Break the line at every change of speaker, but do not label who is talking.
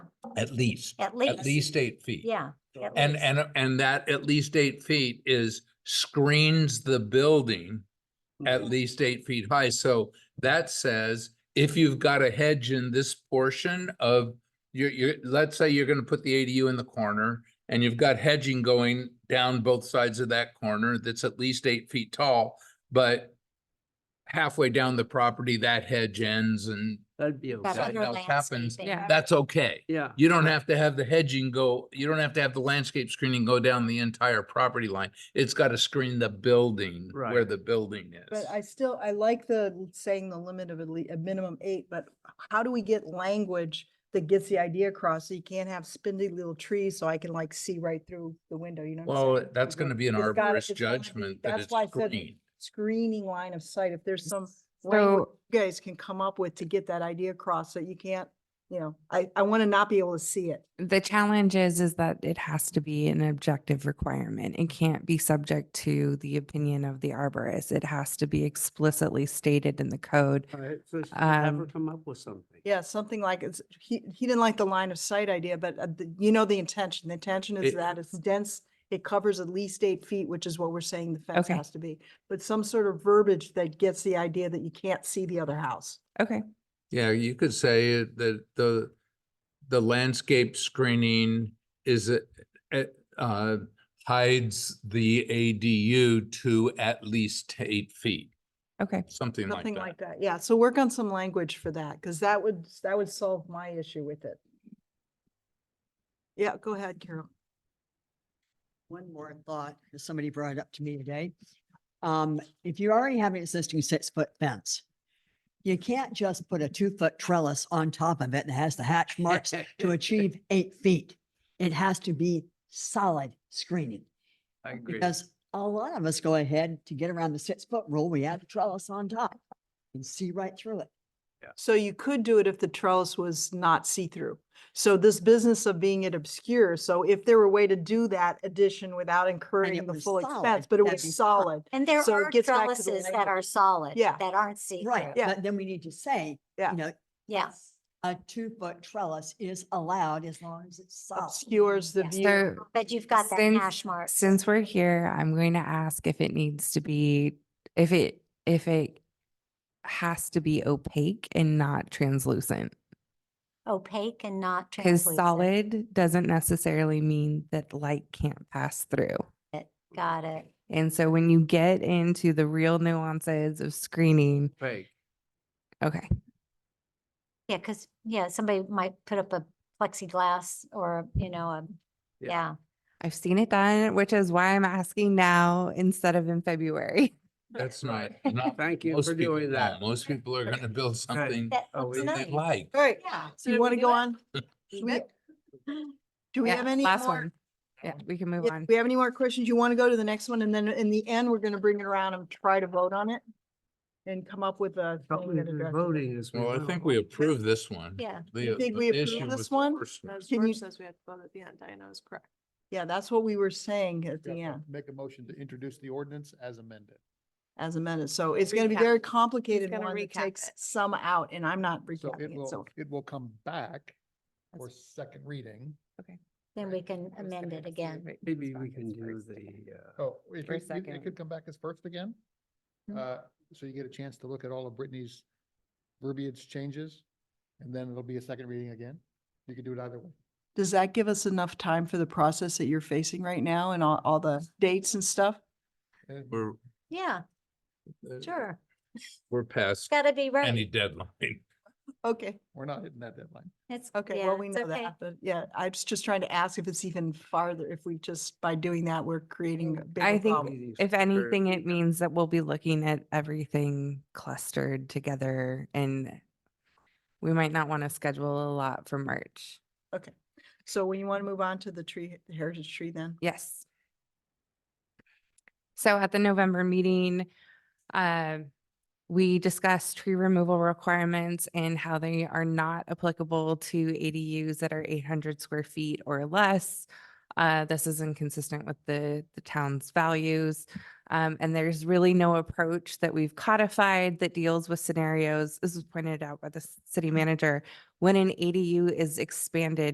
at least,
At
at least eight feet.
Yeah. at
And,
least.
and, and that at least eight feet is screens the building
Mm-hmm.
at least eight feet high. So that says if you've got a hedge in this portion of your, your, let's say you're gonna put the ADU in the corner and you've got hedging going down both sides of that corner that's at least eight feet tall, but halfway down the property, that hedge ends and
That'd be
That
that
okay.
other
else happens,
landscaping.
Yeah.
that's okay.
Yeah,
You don't have to have the hedging go, you don't have to have the landscape screening go down the entire property line. It's got to screen the building where
Right.
the building is.
But I still, I like the l- saying the limit of at least, a minimum eight, but how do we get language that gets the idea across? So you can't have spindly little trees so I can like see right through the window, you know? what I'm
Well,
saying?
that's
Like,
gonna be an
it's gotta-
arborist
it's gotta be-
judgment that
That's
it's
why I said
green.
screening line of sight. If there's some language
So,
you guys can come up with to get that idea across that you can't, you know, I, I want to not be able to see it.
the challenge is, is that it has to be an objective requirement. It can't be subject to the opinion of the arborist. It has to be explicitly stated in the code.
all right, so should I have her
Um,
come up with something.
Yeah, something like it's, he, he didn't like the line of sight idea, but uh, the- you know the intention. The intention is
It-
that it's dense. It covers at least eight feet, which is what we're saying the fence
Okay.
has to be. But some sort of verbiage that gets the idea that you can't see the other house.
Okay,
Yeah, you could say it- that the, the landscape screening is, a- a- uh, hides the ADU to at least eight feet,
okay.
something like
Nothing
that.
like that. Yeah, so work on some language for that, because that would, that would solve my issue with it. Yeah, go ahead, Carol.
One more thought that somebody brought up to me today. Um, if you already have an existing six-foot fence, you can't just put a two-foot trellis on top of it that has the hatch marks to achieve eight feet. It has to be solid screening.
I agree.
Because a lot of us go ahead to get around the six-foot rule, we add a trellis on top and see right through it.
So you could do it if the trellis was not see-through. So this business of being it obscure, so if there were a way to do that addition without incurring the
was
full
solid,
expense, but it
that'd
was
be fine.
solid.
And there
So it
are
gets back to the
trellises that
language.
are solid.
Yeah.
That aren't see-through.
Right,
Yeah.
but then we need to say,
Yeah.
you know,
Yeah.
a two-foot trellis is allowed as long as it's solid.
Obscures the
Yes.
view.
So
But you've got that
Since-
hash mark.
since we're here, I'm going to ask if it needs to be, if it, if it has to be opaque and not translucent.
Opaque and not
Because
translucent.
solid doesn't necessarily mean that light can't pass through.
Got it.
And so when you get into the real nuances of screening,
Fake.
okay,
Yeah, because, yeah, somebody might put up a plexiglass or, you know, a,
Yeah.
yeah.
I've seen it done, which is why I'm asking now instead of in February.
That's not, not.
Thank you
most
for
people
doing
won't.
that.
Most people are gonna build something
That
Oh,
looks
we-
that they
nice.
like.
All right,
Yeah.
so you want to go on? Do we- Do we
Yeah,
have any
Last
more?
one. Yeah, we can move
Yeah,
on.
Do we have any more questions? You want to go to the next one and then in the end, we're going to bring it around and try to vote on it? And come up with a.
Help
thing
me
that
with
addresses it.
voting as
Well,
well.
I think we approved this one.
Yeah.
The-
You think
the
we approve
issue
this
was the
one?
first
As
Can you-
George says, we have to vote at the end. I know is correct.
Yeah, that's what we were saying at the
Yeah,
end
Make a motion to introduce the ordinance as amended.
as a minute. So it's going to be
Recap.
very complicated
gonna
one that
recap
takes
it.
some out and I'm not
So it
recapping it. So
will, it will come back
That's-
for second reading.
Then we can amend it again.
Maybe we can do the, uh,
Oh, it
For
could, you-
second.
it could come back as first again.
Mhm.
Uh, so you get a chance to look at all of Brittany's verbiage changes, and then it'll be a second reading again. You could do it either way.
does that give us enough time for the process that you're facing right now and all, all the dates and stuff?
And it'd be
We're,
Yeah,
uh,
sure.
we're
It's
past
got to be
any
right.
deadline.
Okay,
We're not hitting that deadline.
It's,
okay,
yeah,
well, we
it's
know
okay.
that, but yeah, I was just trying to ask if it's even farther, if we just, by doing that, we're creating a
I
bigger
think
problem.
meetings
If
for
anything, it
people.
means that we'll be looking at everything clustered together and we might not want to schedule a lot for March.
So when you want to move on to the tree, the heritage tree then?
Yes. So at the November meeting, uh, we discussed tree removal requirements and how they are not applicable to ADUs that are eight hundred square feet or less. Uh, this is inconsistent with the, the town's values. Um, and there's really no approach that we've codified that deals with scenarios. This was pointed out by the s- city manager. When an ADU is expanded